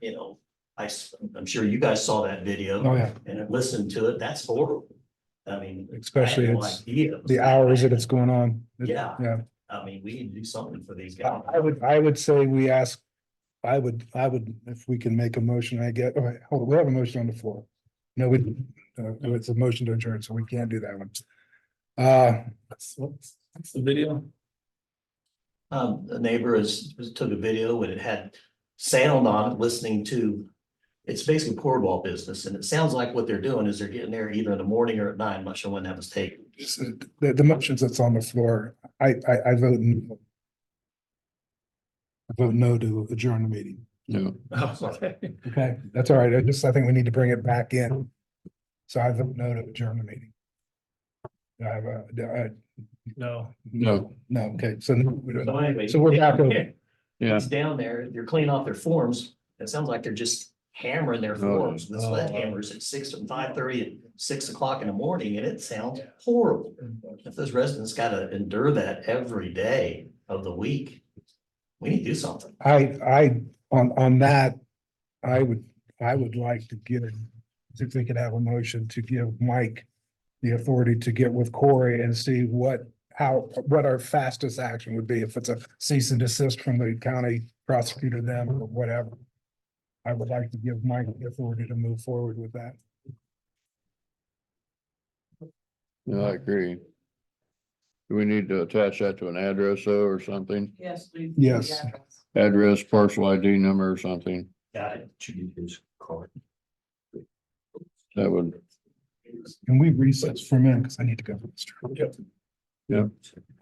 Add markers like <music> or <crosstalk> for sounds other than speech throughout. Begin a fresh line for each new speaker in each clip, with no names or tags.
you know, I, am sure you guys saw that video
Oh, yeah,
and have listened to it. That's horrible. I mean. I had
especially
no
it's
idea.
the hours that it's going on. It-
Yeah.
Yeah,
I mean, we need to do something for these guys.
I I would, I would say we ask, I would, I would, if we can make a motion, I get, all right, hold on, we have a motion on the floor. No, we, uh, it's a motion to adjourn, so we can't do that one. Uh,
What's what's the video?
Um, a neighbor has, has took a video and it had sound on it, listening to. It's basically cornwall business and it sounds like what they're doing is they're getting there either in the morning or at night. I'm not sure when that was taken.
s- uh, the, the motions that's on the floor, I, I, I vote no. I vote no to adjourn the meeting.
No.
Okay, that's all right. I just, I think we need to bring it back in. So I vote no to adjourn the meeting. Do I have a, do I-
No.
No,
no, okay, so no, we don't.
So anyway.
So we're back over.
yeah.
It's down there, they're cleaning off their forms. It sounds like they're just hammering their forms with
Oh, wow.
sledgehammers at six and five thirty and six o'clock in the morning and it sounds horrible. If those residents gotta endure that every day of the week, we need to do something.
I, I, on, on that, I would, I would like to give, if we could have a motion to give Mike the authority to get with Corey and see what, how, what our fastest action would be, if it's a cease and desist from the county prosecutor them or whatever. I would like to give Mike the authority to move forward with that.
No, I agree. Do we need to attach that to an address though or something?
Yes, please.
Yes.
Address, parcel ID number or something?
Got it. Should be his card.
That would,
Can we recess for a minute? Because I need to go.
Yeah.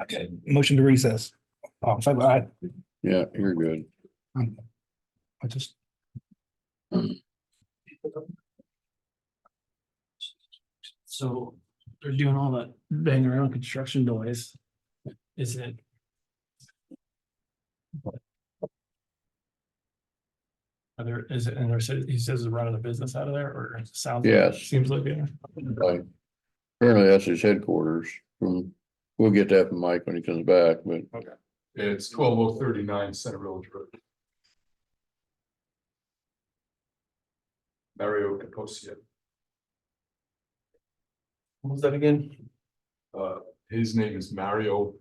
Okay, motion to recess. Oh, in favor, aye.
yeah, you're good.
Um, I just.
So they're doing all that bang around construction noise. Is it? Are there, is it, and there's, he says he's running a business out of there or it sounds? like-
Yes.
Seems like it.
Like, Apparently that's his headquarters. from- We'll get that from Mike when he comes back, but
It's twelve oh thirty-nine Center Village Road. Mario Capocia,
What was that again?
uh, his name is Mario.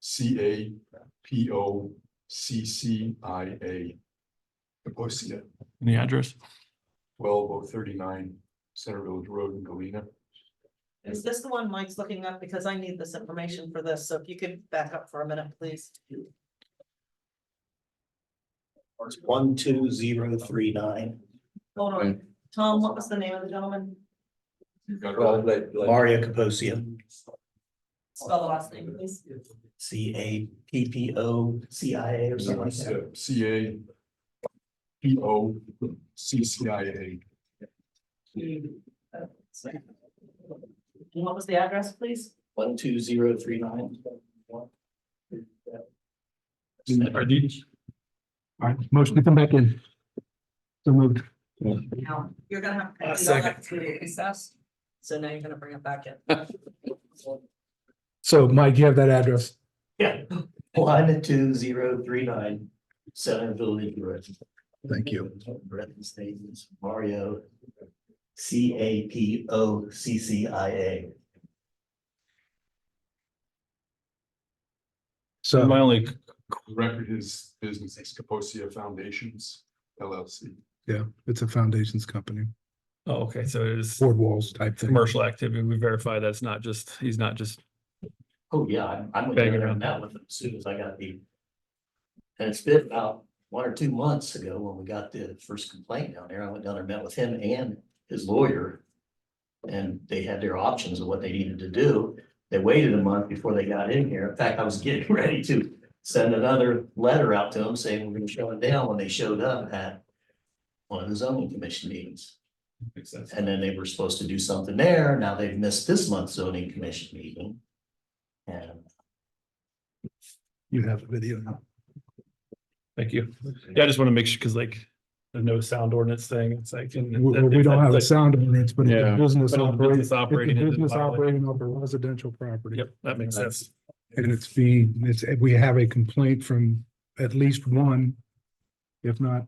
C A P O C C I A. Capocia,
The address?
twelve oh thirty-nine Center Village Road in Galena.
Is this the one Mike's looking up? Because I need this information for this, so if you could back up for a minute, please.
One, two, zero, three, nine.
Hold on, Tom, what was the name of the gentleman?
You got it all?
Mario Kaposia,
Spell the last name, please.
C A P P O C I A or something like that.
C A. P O C C I A,
And what was the address, please?
One, two, zero, three, nine.
Are these?
All right, motion to come back in. So moved.
Now, you're gonna have.
Uh,
to do all
second.
that through recess. So now you're gonna bring it back in.
So Mike, you have that address?
Yeah. One, two, zero, three, nine, Center Village Road.
Thank you.
Breton Stevens, Mario. C A P O C C I A.
So
only
The record his business is Capocia Foundations LLC.
yeah, it's a foundations company,
Oh, okay, so it is
board walls type thing.
commercial activity. We verify that's not just, he's not just,
Oh, yeah, I'm, I'm gonna
Banging
get around that
around.
with them as soon as I got the. And it's been about one or two months ago when we got the first complaint down there. I went down there, met with him and his lawyer. And they had their options of what they needed to do. They waited a month before they got in here. In fact, I was <laughs> getting ready to send another letter out to them saying we're gonna shut it down when they showed up at. One of the zoning commission meetings.
makes sense.
And then they were supposed to do something there. Now they've missed this month's zoning commission meeting. And
You have a video now.
Thank you. Yeah, I just want to make sure, because like, the no sound ordinance thing, it's like.
We, we don't have a sound ordinance, but it's
Yeah.
a business
But on
operating,
business
it's a
operating, it's
business
violated.
operating over residential property.
Yep, that makes sense.
And it's being, it's, we have a complaint from at least one, if not